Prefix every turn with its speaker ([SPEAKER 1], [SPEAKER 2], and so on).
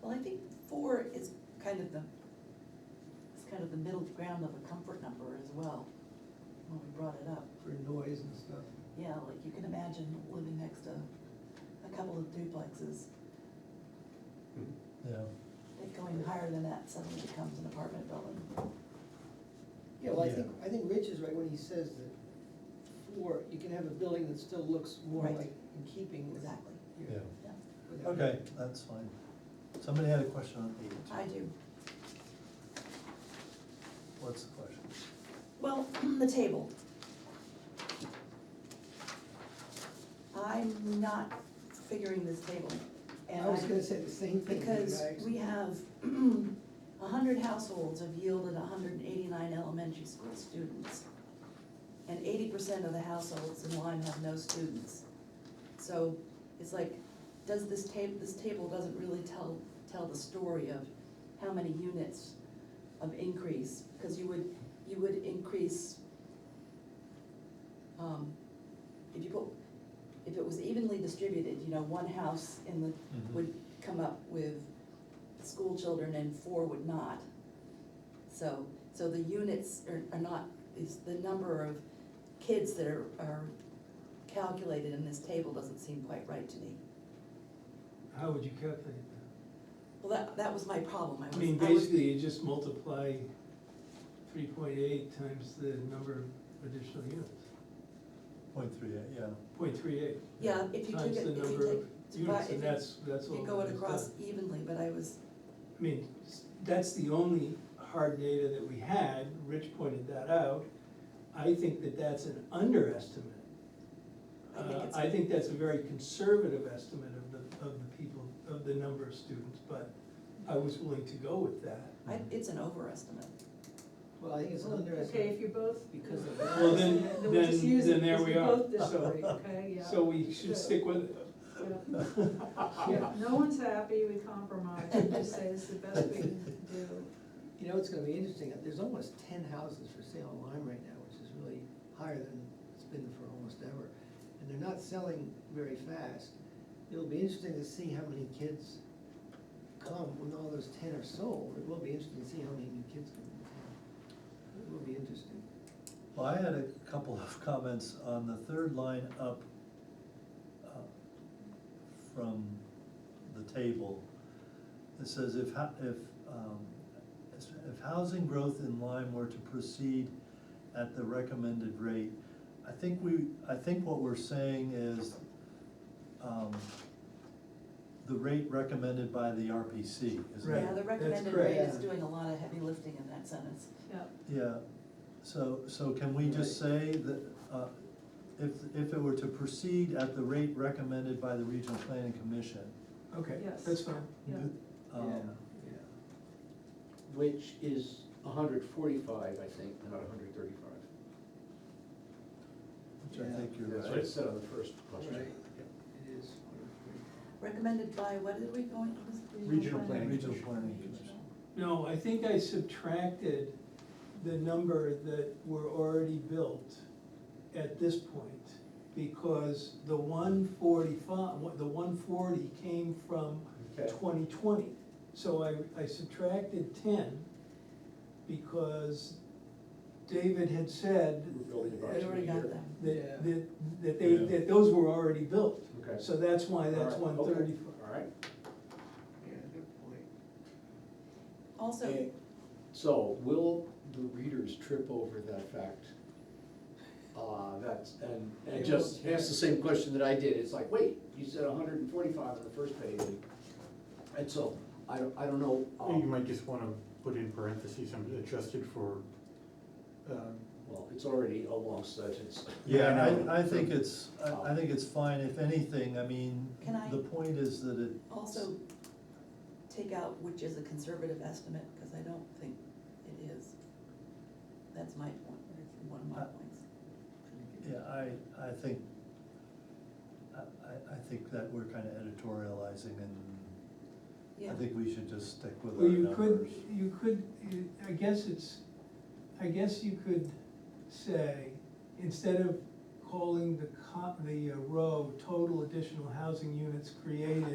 [SPEAKER 1] Well, I think four is kind of the, it's kind of the middle ground of a comfort number as well, when we brought it up.
[SPEAKER 2] for noise and stuff.
[SPEAKER 1] Yeah, like you can imagine living next to a couple of duplexes,
[SPEAKER 3] Yeah,
[SPEAKER 1] it going higher than that suddenly becomes an apartment building.
[SPEAKER 2] Yeah, well, I
[SPEAKER 3] Yeah.
[SPEAKER 2] think, I think Rich is right when he says that four, you can have a building that still looks more
[SPEAKER 1] Right.
[SPEAKER 2] like in keeping with.
[SPEAKER 1] Exactly.
[SPEAKER 2] your-
[SPEAKER 3] yeah,
[SPEAKER 1] Yeah,
[SPEAKER 2] with that.
[SPEAKER 3] okay, that's fine. Somebody had a question on eight.
[SPEAKER 1] I do.
[SPEAKER 3] What's the question?
[SPEAKER 1] Well, the table. I'm not figuring this table. and
[SPEAKER 2] I was gonna say the same thing. you
[SPEAKER 1] Because
[SPEAKER 2] guys.
[SPEAKER 1] we have a hundred households have yielded hundred and eighty-nine elementary school students. And eighty percent of the households in Lyme have no students. So it's like, does this table, this table doesn't really tell, tell the story of how many units of increase, because you would, you would increase, um, if you put, if it was evenly distributed, you know, one house in the,
[SPEAKER 4] Mm-hmm.
[SPEAKER 3] Mhm.
[SPEAKER 1] would come up with school children and four would not. So, so the units are, are not, is the number of kids that are, are calculated in this table doesn't seem quite right to me.
[SPEAKER 4] How would you calculate that?
[SPEAKER 1] Well, that, that was my problem, I was.
[SPEAKER 4] I mean,
[SPEAKER 1] was-
[SPEAKER 4] basically, you just multiply three point eight times the number of additional units,
[SPEAKER 3] Point three eight, yeah.
[SPEAKER 4] point three eight.
[SPEAKER 1] Yeah, if you took
[SPEAKER 4] Times
[SPEAKER 1] it,
[SPEAKER 4] the
[SPEAKER 1] if
[SPEAKER 4] number of
[SPEAKER 1] you take.
[SPEAKER 4] units,
[SPEAKER 1] if
[SPEAKER 4] and
[SPEAKER 1] you-
[SPEAKER 4] that's, that's all.
[SPEAKER 1] You go
[SPEAKER 4] that
[SPEAKER 1] it
[SPEAKER 4] is
[SPEAKER 1] across
[SPEAKER 4] done.
[SPEAKER 1] evenly, but I was,
[SPEAKER 4] I mean, s- that's the only hard data that we had, Rich pointed that out. I think that that's an underestimate.
[SPEAKER 1] I think
[SPEAKER 4] Uh,
[SPEAKER 1] it's-
[SPEAKER 4] I think that's a very conservative estimate of the, of the people, of the number of students, but I was willing to go with that.
[SPEAKER 1] I, it's an overestimate.
[SPEAKER 2] Well, I think it's
[SPEAKER 5] Okay, if
[SPEAKER 2] interesting
[SPEAKER 5] you're both,
[SPEAKER 2] because of.
[SPEAKER 4] Well, then,
[SPEAKER 5] then we'll just
[SPEAKER 4] then,
[SPEAKER 5] use it,
[SPEAKER 4] then there
[SPEAKER 5] because
[SPEAKER 4] we
[SPEAKER 5] we
[SPEAKER 4] are,
[SPEAKER 5] both disagree,
[SPEAKER 3] so-
[SPEAKER 5] okay, yeah.
[SPEAKER 4] so we should stick with it.
[SPEAKER 5] Yeah.
[SPEAKER 2] Yeah.
[SPEAKER 5] No one's happy, we compromise, we just say it's the best we can do.
[SPEAKER 2] You know, it's gonna be interesting, there's almost ten houses for sale on Lime right now, which is really higher than it's been for almost ever. And they're not selling very fast. It'll be interesting to see how many kids come when all those ten are sold. It will be interesting to see how many new kids come into town. It will be interesting.
[SPEAKER 3] Well, I had a couple of comments on the third line up uh, from the table. It says if, hou- if, um, if housing growth in Lyme were to proceed at the recommended rate, I think we, I think what we're saying is, um, the rate recommended by the RPC, isn't it?
[SPEAKER 4] Right,
[SPEAKER 1] Yeah, the
[SPEAKER 4] that's
[SPEAKER 1] recommended
[SPEAKER 4] correct.
[SPEAKER 1] rate is
[SPEAKER 2] Yeah.
[SPEAKER 1] doing a lot of heavy lifting in that sentence.
[SPEAKER 5] Yeah,
[SPEAKER 3] Yeah, so, so can we just say that, uh, if, if it were to proceed at the rate recommended by the regional planning commission?
[SPEAKER 4] Okay,
[SPEAKER 5] Yes.
[SPEAKER 4] that's fine.
[SPEAKER 5] yeah,
[SPEAKER 3] um,
[SPEAKER 2] yeah.
[SPEAKER 6] Which is hundred forty-five, I think, not hundred thirty-five.
[SPEAKER 3] Which I think you're
[SPEAKER 6] That's what it
[SPEAKER 3] right.
[SPEAKER 6] said on the first question.
[SPEAKER 2] Right. It is.
[SPEAKER 1] Recommended by, what did we go in? it was
[SPEAKER 6] Regional planning.
[SPEAKER 3] Regional planning commission.
[SPEAKER 4] No, I think I subtracted the number that were already built at this point. Because the one forty-five, the one forty came from
[SPEAKER 6] Okay.
[SPEAKER 4] twenty twenty. So I, I subtracted ten because David had said
[SPEAKER 6] We're building
[SPEAKER 1] I already got that.
[SPEAKER 2] Yeah.
[SPEAKER 4] that, that, that they,
[SPEAKER 3] Yeah.
[SPEAKER 4] that those were already built.
[SPEAKER 6] Okay.
[SPEAKER 4] So that's why that's
[SPEAKER 6] All right,
[SPEAKER 4] one
[SPEAKER 6] okay,
[SPEAKER 4] thirty-five.
[SPEAKER 6] All right,
[SPEAKER 2] Yeah, good point.
[SPEAKER 1] Also,
[SPEAKER 6] so will the readers trip over that fact? Uh, that's, and, and just ask the same question that I did, it's like, wait, you said hundred and forty-five on the first page. and- And so, I don't, I don't know. um,
[SPEAKER 7] You might just wanna put in parentheses, um, adjusted for, um,
[SPEAKER 6] Well, it's already a long sentence.
[SPEAKER 3] Yeah,
[SPEAKER 7] I know.
[SPEAKER 3] I, I think it's, I, I think it's fine, if anything, I mean,
[SPEAKER 1] Can I-
[SPEAKER 3] the point is that it,
[SPEAKER 1] also take out which is a conservative estimate, because I don't think it is. That's my point, one of my points.
[SPEAKER 3] yeah, I, I think, I, I, I think that we're kinda editorializing and
[SPEAKER 1] Yeah,
[SPEAKER 3] I think we should just stick with our
[SPEAKER 4] Well, you
[SPEAKER 3] numbers.
[SPEAKER 4] could, you could, you- I guess it's, I guess you could say, instead of calling the co, the uh, row total additional housing units created,